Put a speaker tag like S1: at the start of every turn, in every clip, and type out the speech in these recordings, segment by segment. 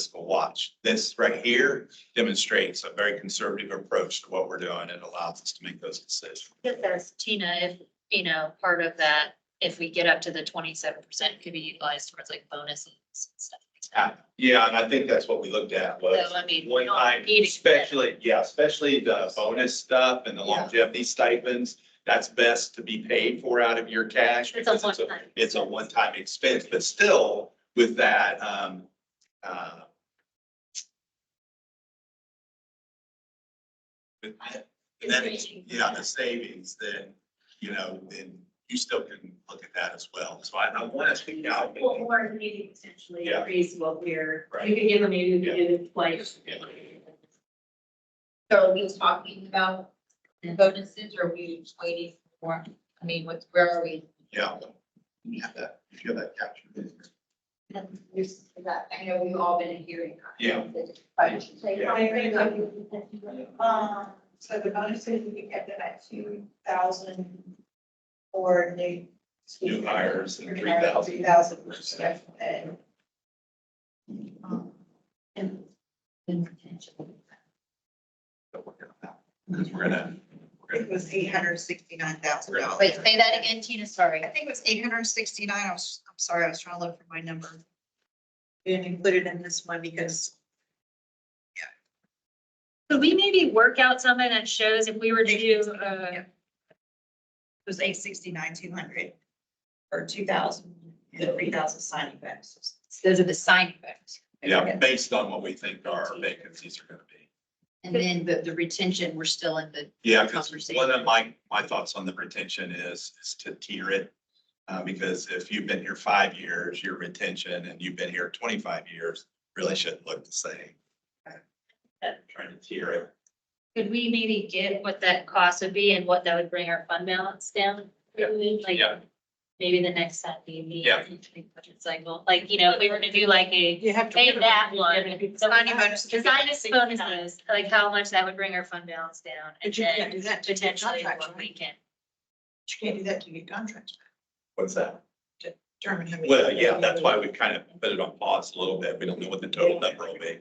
S1: fiscal watch. This right here demonstrates a very conservative approach to what we're doing and allows us to make those decisions.
S2: It says, Tina, if, you know, part of that, if we get up to the twenty-seven percent, could be utilized towards like bonuses and stuff.
S1: Uh, Yeah, and I think that's what we looked at was
S2: So, I mean, we
S1: one
S2: don't
S1: time,
S2: need to-
S1: especially, yeah, especially the bonus stuff and the
S2: Yeah.
S1: longevity stipends. That's best to be paid for out of your cash.
S2: It's a
S1: because
S2: one-time
S1: It's a
S2: expense.
S1: one-time expense, but still with that, um, uh, with that- with that,
S2: Increasing.
S1: yeah, the savings, then, you know, then you still can look at that as well. So I, I want to speak out.
S3: Well, or maybe potentially
S1: Yeah.
S3: increase what we're,
S1: Right.
S3: you could give them, maybe we could give it like.
S1: Yeah.
S4: So are we talking about bonuses or are we waiting for, I mean, what's, where are we?
S1: Yeah. You have that, you have that captured.
S4: There's that, I know we've all been hearing. that.
S1: Yeah.
S4: But should say-
S1: Yeah.
S5: Um, so the bonuses, we could get them at two thousand or new.
S1: New hires and
S5: Three thousand percent and. um, And
S1: Because we're gonna, we're
S5: it
S1: gonna,
S5: was eight hundred sixty-nine thousand dollars.
S2: Wait, say that again, Tina, sorry.
S5: I think it was eight hundred sixty-nine, I was, I'm sorry, I was trying to look for my number. Didn't include it in this one because
S2: Could we maybe work out something that shows if we were to do, uh,
S5: Yeah. It was eight sixty-nine, two hundred, or two thousand, and three thousand signing bonuses.
S4: Those are the signing bonus.
S1: yeah, based on what we think our vacancies are gonna be.
S4: And then the, the retention, we're still in the,
S1: Yeah, because one of my, my thoughts on the retention is, is to tier it. Uh, because if you've been here five years, your retention, and you've been here twenty-five years, really shouldn't look the same. Trying to tier it.
S2: could we maybe get what that cost would be and what that would bring our fund balance down?
S1: Yeah.
S2: Like,
S1: Yeah.
S2: Maybe the next time we meet.
S1: Yeah.
S2: budget Cycle, like, you know, if we were to do like a,
S3: You have to.
S2: pay that one.
S5: Signing bonus.
S2: Design us bonuses, like how much that would bring our fund balance down. and
S3: But you can't
S2: then
S3: do that to your
S2: Potentially
S3: contract,
S2: what
S3: right?
S2: we can.
S3: You can't do that to your contract,
S1: What's that?
S3: determine how many.
S1: Well, yeah, that's why we kind of put it on pause a little bit. We don't know what the total number will be.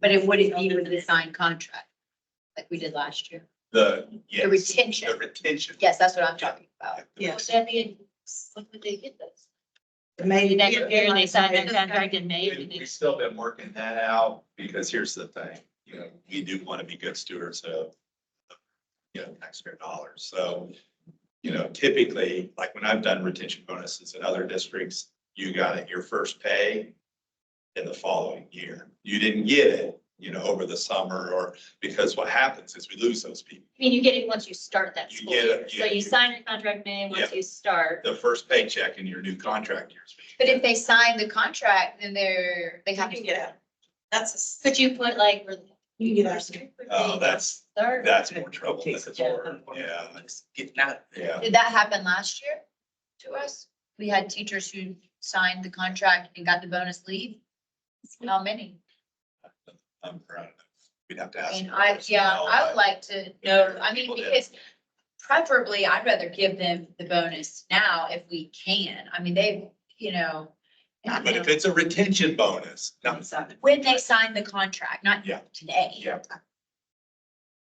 S4: but it wouldn't be with the signed contract like we did last year.
S1: The, yes.
S4: The retention.
S1: The retention.
S4: Yes, that's what I'm talking about.
S2: Would
S3: Yes.
S2: that be, when would they get those?
S3: Maybe
S2: Next year, they sign that contract in May.
S1: We- We've still been working that out, because here's the thing, you know, we do want to be good stewards of, you know, taxpayer dollars, so, you know, typically, like when I've done retention bonuses in other districts, you got it your first pay in the following year. You didn't get it, you know, over the summer, or, because what happens is we lose those people.
S2: I mean, you get it once you start that
S1: You
S2: school
S1: get
S2: year.
S1: it,
S2: So
S1: yeah.
S2: you sign your contract May, once
S1: Yeah.
S2: you start.
S1: The first paycheck in your new contract years.
S4: But if they sign the contract, then they're, they have
S3: You
S4: to
S3: can get out. That's
S2: Could you put like,
S3: a, you can get out.
S1: Oh, that's,
S2: start?
S1: that's more trouble than it's
S3: Yeah.
S1: worth, yeah,
S3: Get out.
S1: yeah.
S4: Did that happen last year to us? We had teachers who signed the contract and got the bonus leave. How many?
S1: I'm proud of it. We'd have to ask.
S4: And
S1: the
S4: I, yeah,
S1: personnel,
S4: I would
S1: but
S4: like to know, I mean, because preferably I'd rather give them the bonus now if we can. I mean, they, you know. I
S1: But
S4: don't
S1: if
S4: know,
S1: it's a retention bonus, no,
S4: When they sign the contract, not
S1: Yeah.
S4: today.
S1: Yeah.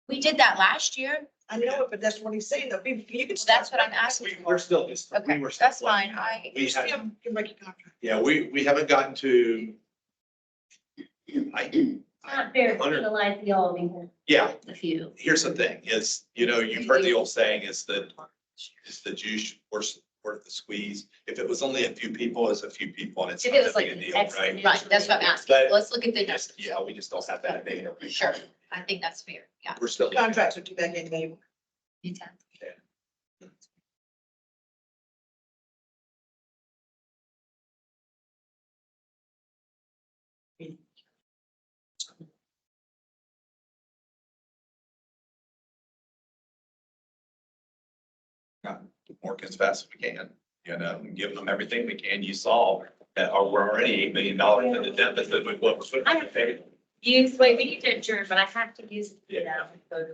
S4: We did that last year.
S3: I know, it, but that's what he's saying, though, you you can.
S4: That's what I'm asking
S1: we, we're still just. we
S4: Okay,
S1: were still
S4: that's fine.
S1: playing.
S4: I,
S1: We
S3: You
S1: haven't,
S3: can break your contract.
S1: yeah, we, we haven't gotten to. I,
S2: Not fair to
S1: Hundred-
S2: penalize the all, because
S1: yeah,
S2: the few.
S1: here's the thing is, you know, you've heard the old saying is that, is the juice worth, worth the squeeze. If it was only a few people, it's a few people and it's
S2: If
S1: not
S2: it was
S1: that
S2: like
S1: big a
S2: an
S1: deal,
S2: X
S1: right?
S4: right, that's what I'm asking.
S1: But-
S4: Let's look at the
S1: Just,
S4: numbers.
S1: yeah, we just don't have that data.
S4: Sure. I think that's fair. Yeah.
S1: We're still.
S3: Contracts are due back in May.
S1: work as fast as we can, you know, and giving them everything we can. You saw that uh, we're already eight million dollars in the deficit with what we're putting on the table.
S2: Use, wait, we need to adjourn, but I have to use, you know,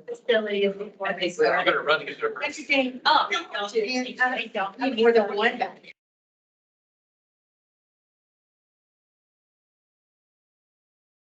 S2: facility of.
S3: I think
S6: I'm gonna run into.
S2: Entertaining, oh.
S4: You have more than one back.